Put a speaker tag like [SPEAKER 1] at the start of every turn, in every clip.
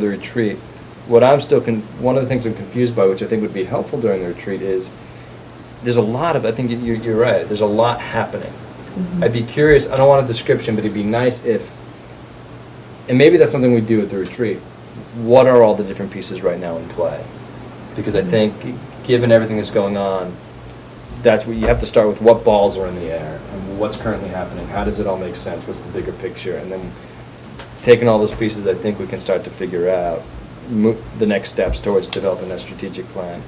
[SPEAKER 1] the retreat, what I'm still, con- one of the things I'm confused by, which I think would be helpful during the retreat, is there's a lot of, I think you- you're right, there's a lot happening.
[SPEAKER 2] Mm-hmm.
[SPEAKER 3] Mhm.
[SPEAKER 1] I'd be curious, I don't want a description, but it'd be nice if, and maybe that's something we do at the retreat, what are all the different pieces right now in play? Because I think, given everything that's going on, that's what, you have to start with what balls are in the air, and what's currently happening, how does it all make sense, what's the bigger picture? And then, taking all those pieces, I think we can start to figure out mo- the next steps towards developing that strategic plan.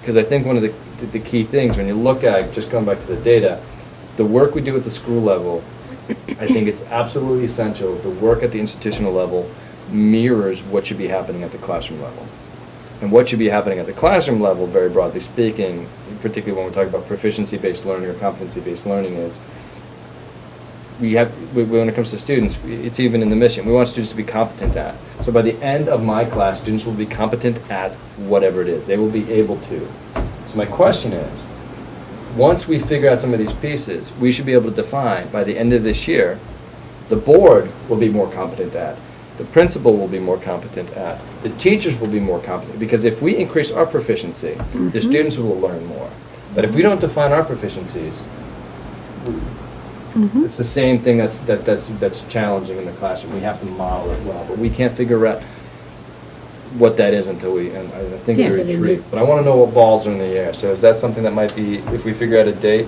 [SPEAKER 1] Because I think one of the, the key things, when you look at, just going back to the data, the work we do at the school level, I think it's absolutely essential, the work at the institutional level mirrors what should be happening at the classroom level. And what should be happening at the classroom level, very broadly speaking, particularly when we're talking about proficiency-based learning or competency-based learning is, we have, we- when it comes to students, it's even in the mission, we want students to be competent at. So by the end of my class, students will be competent at whatever it is, they will be able to. So my question is, once we figure out some of these pieces, we should be able to define, by the end of this year, the board will be more competent at, the principal will be more competent at, the teachers will be more competent, because if we increase our proficiency, the students will learn more. But if we don't define our proficiencies,
[SPEAKER 2] Mm-hmm.
[SPEAKER 1] it's the same thing that's, that, that's, that's challenging in the classroom. We have to model it well, but we can't figure out what that is until we, and I I think
[SPEAKER 3] Yeah,
[SPEAKER 1] we
[SPEAKER 3] but in the-
[SPEAKER 1] retreat. But I wanna know what balls are in the air, so is that something that might be, if we figure out a date,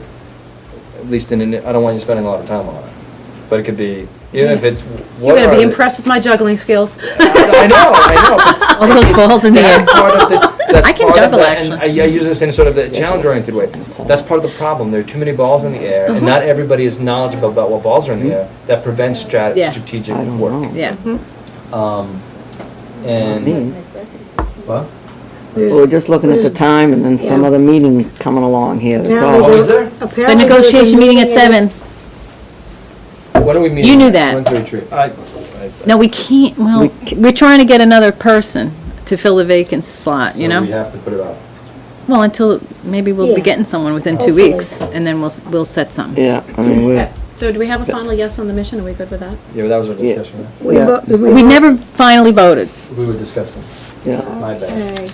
[SPEAKER 1] at least in, an- I don't want you spending a lot of time on it. But it could be, even if it's,
[SPEAKER 3] You're
[SPEAKER 1] what
[SPEAKER 3] going to
[SPEAKER 1] are
[SPEAKER 3] be
[SPEAKER 1] the-
[SPEAKER 3] impressed with my juggling skills.
[SPEAKER 1] I know, I know, but
[SPEAKER 4] All those balls in the air.
[SPEAKER 1] that's part of the, that's
[SPEAKER 4] I can
[SPEAKER 1] part of
[SPEAKER 4] juggle,
[SPEAKER 1] the- and I, I use this in sort of the challenge-oriented way. That's part of the problem. There are too many balls in the air, and
[SPEAKER 4] Uh-huh.
[SPEAKER 1] not everybody is knowledgeable about what balls are in the air. That prevents strat-
[SPEAKER 4] Yeah.
[SPEAKER 1] strategic
[SPEAKER 5] Mm-hmm. I don't
[SPEAKER 1] work.
[SPEAKER 4] Yeah.
[SPEAKER 1] Um,
[SPEAKER 5] Not me.
[SPEAKER 1] and what?
[SPEAKER 5] We were just looking at the time and then some
[SPEAKER 6] Yeah.
[SPEAKER 5] other meeting coming along here, that's
[SPEAKER 6] Apparently
[SPEAKER 1] Oh,
[SPEAKER 5] all.
[SPEAKER 1] is there?
[SPEAKER 6] Apparently
[SPEAKER 4] The
[SPEAKER 6] there's a
[SPEAKER 4] negotiation meeting at seven.
[SPEAKER 1] When do we meet?
[SPEAKER 4] You knew that.
[SPEAKER 1] When's the retreat? I, I,
[SPEAKER 4] No, we can't, well,
[SPEAKER 5] We c-
[SPEAKER 4] we're trying to get another person to fill the vacant slot, you
[SPEAKER 1] so we
[SPEAKER 4] know?
[SPEAKER 1] have to put it off.
[SPEAKER 4] Well, until, maybe we'll
[SPEAKER 6] Yeah.
[SPEAKER 4] be getting someone within two
[SPEAKER 6] Hopefully.
[SPEAKER 4] weeks, and then we'll, s- we'll set something.
[SPEAKER 5] Yeah, I mean, we're,
[SPEAKER 2] Okay, so do we have a final yes on the mission? Are we good with that?
[SPEAKER 1] Yeah, but that was our
[SPEAKER 5] Yeah.
[SPEAKER 1] discussion. right?
[SPEAKER 6] We
[SPEAKER 5] yeah,
[SPEAKER 6] vo- we-
[SPEAKER 4] We never finally voted.
[SPEAKER 1] We were discussing.
[SPEAKER 5] yeah.
[SPEAKER 1] My bad.
[SPEAKER 6] Okay.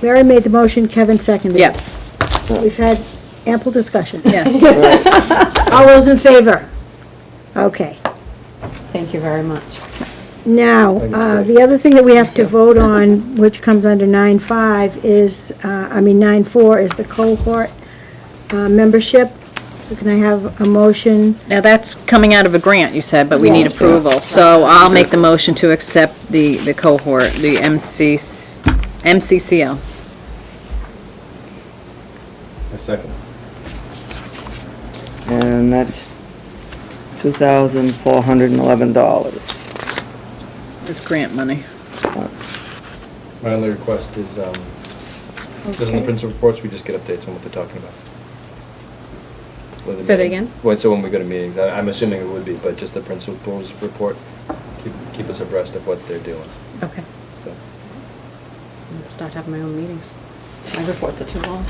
[SPEAKER 6] Mary made the motion, Kevin seconded it.
[SPEAKER 4] Yeah,
[SPEAKER 6] We've had ample discussion.
[SPEAKER 4] yes.
[SPEAKER 6] All those in favor? Okay.
[SPEAKER 2] Thank you very much.
[SPEAKER 6] Now,
[SPEAKER 1] Thank
[SPEAKER 6] uh,
[SPEAKER 1] you.
[SPEAKER 6] the other thing that we have to vote on, which comes under nine five, is, uh, I mean, nine four is the cohort uh, membership. So can I have a motion?
[SPEAKER 4] Now, that's coming out of a grant, you said, but we need
[SPEAKER 6] Yes.
[SPEAKER 4] approval. So I'll make the motion to accept the, the cohort, the MC, MCCO.
[SPEAKER 1] A second.
[SPEAKER 5] And that's two thousand four hundred and eleven dollars. Uh,
[SPEAKER 4] It's grant money.
[SPEAKER 1] My only request is, um, doesn't the principal reports, we just get updates on what they're talking about? Whether
[SPEAKER 2] Say that
[SPEAKER 1] meeting-
[SPEAKER 2] again?
[SPEAKER 1] Well, so when we go to meetings, I- I'm assuming it would be, but just the principal's report, keep, keep us abreast of what they're doing,
[SPEAKER 2] Okay.
[SPEAKER 1] so.
[SPEAKER 2] I'll Start having my own meetings. My reports are too long.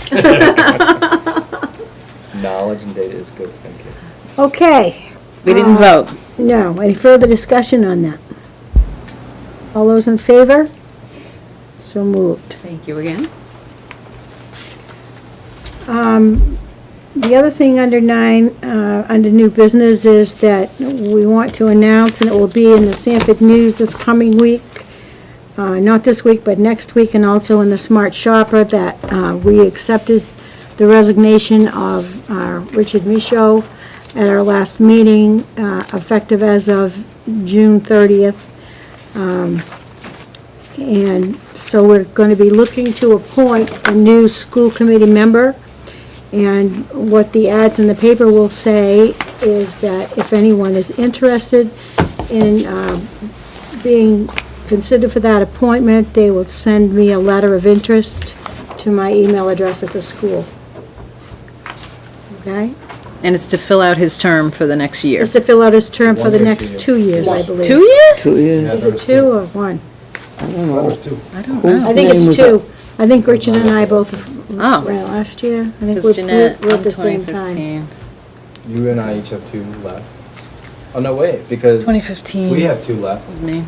[SPEAKER 1] Knowledge and data is good, thank you.
[SPEAKER 6] Okay,
[SPEAKER 4] We didn't
[SPEAKER 6] Ah.
[SPEAKER 4] vote.
[SPEAKER 6] no, any further discussion on that? All those in favor? So moved.
[SPEAKER 2] Thank you again.
[SPEAKER 6] The other thing under nine, uh, under new business is that we want to announce, and it will be in the Sanford News this coming week, uh, not this week, but next week, and also in the Smart Shopper, that uh, we accepted the resignation of uh, Richard Micho at our last meeting, uh, effective as of June 30th. Um, And so we're going to be looking to appoint a new school committee member. And what the ads in the paper will say is that if anyone is interested in um, being considered for that appointment, they will send me a letter of interest to my email address at the school. Okay?
[SPEAKER 4] And it's to fill out his term for the next year.
[SPEAKER 6] Just to fill out his term for
[SPEAKER 1] One
[SPEAKER 6] the
[SPEAKER 1] year,
[SPEAKER 6] next
[SPEAKER 1] two
[SPEAKER 6] two years, I believe.
[SPEAKER 4] Two years?
[SPEAKER 5] Two years.
[SPEAKER 6] Is it two or one?
[SPEAKER 4] I don't know.
[SPEAKER 6] I think
[SPEAKER 5] name
[SPEAKER 6] it's
[SPEAKER 5] was
[SPEAKER 6] two. I think Richard and I both
[SPEAKER 4] Oh.
[SPEAKER 6] ran last year. I think
[SPEAKER 4] Because
[SPEAKER 6] we
[SPEAKER 4] Jeanette,
[SPEAKER 6] were at
[SPEAKER 4] I'm
[SPEAKER 6] the same time.
[SPEAKER 4] 2015.
[SPEAKER 1] You and I each have two left. Oh, no, wait, because
[SPEAKER 4] 2015.
[SPEAKER 1] we have two left.
[SPEAKER 4] It was me.